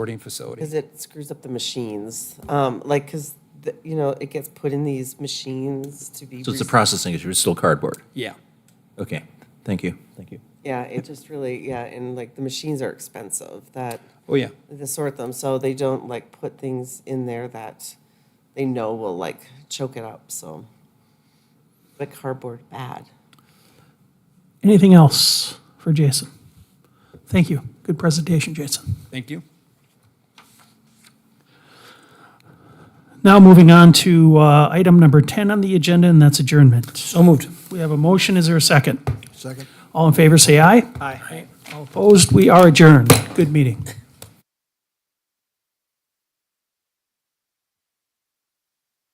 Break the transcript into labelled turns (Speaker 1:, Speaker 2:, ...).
Speaker 1: boarding facility.
Speaker 2: Because it screws up the machines, um, like, because, you know, it gets put in these machines to be.
Speaker 3: So it's a
Speaker 2: recycled.
Speaker 3: processing issue, it's still cardboard.
Speaker 1: Yeah.
Speaker 3: Okay, thank you, thank you.
Speaker 2: Yeah, it just really, yeah, and like the machines are expensive that,
Speaker 1: Oh, yeah.
Speaker 2: to sort them, so they don't like put things in there that they know will like choke it up, so. But cardboard, bad.
Speaker 4: Anything else for Jason? Thank you. Good presentation, Jason.
Speaker 1: Thank you.
Speaker 4: Now moving on to uh, item number 10 on the agenda, and that's adjournment. So moved. We have a motion. Is there a second? Second. All in favor, say aye. Aye. All opposed, we are adjourned. Good meeting.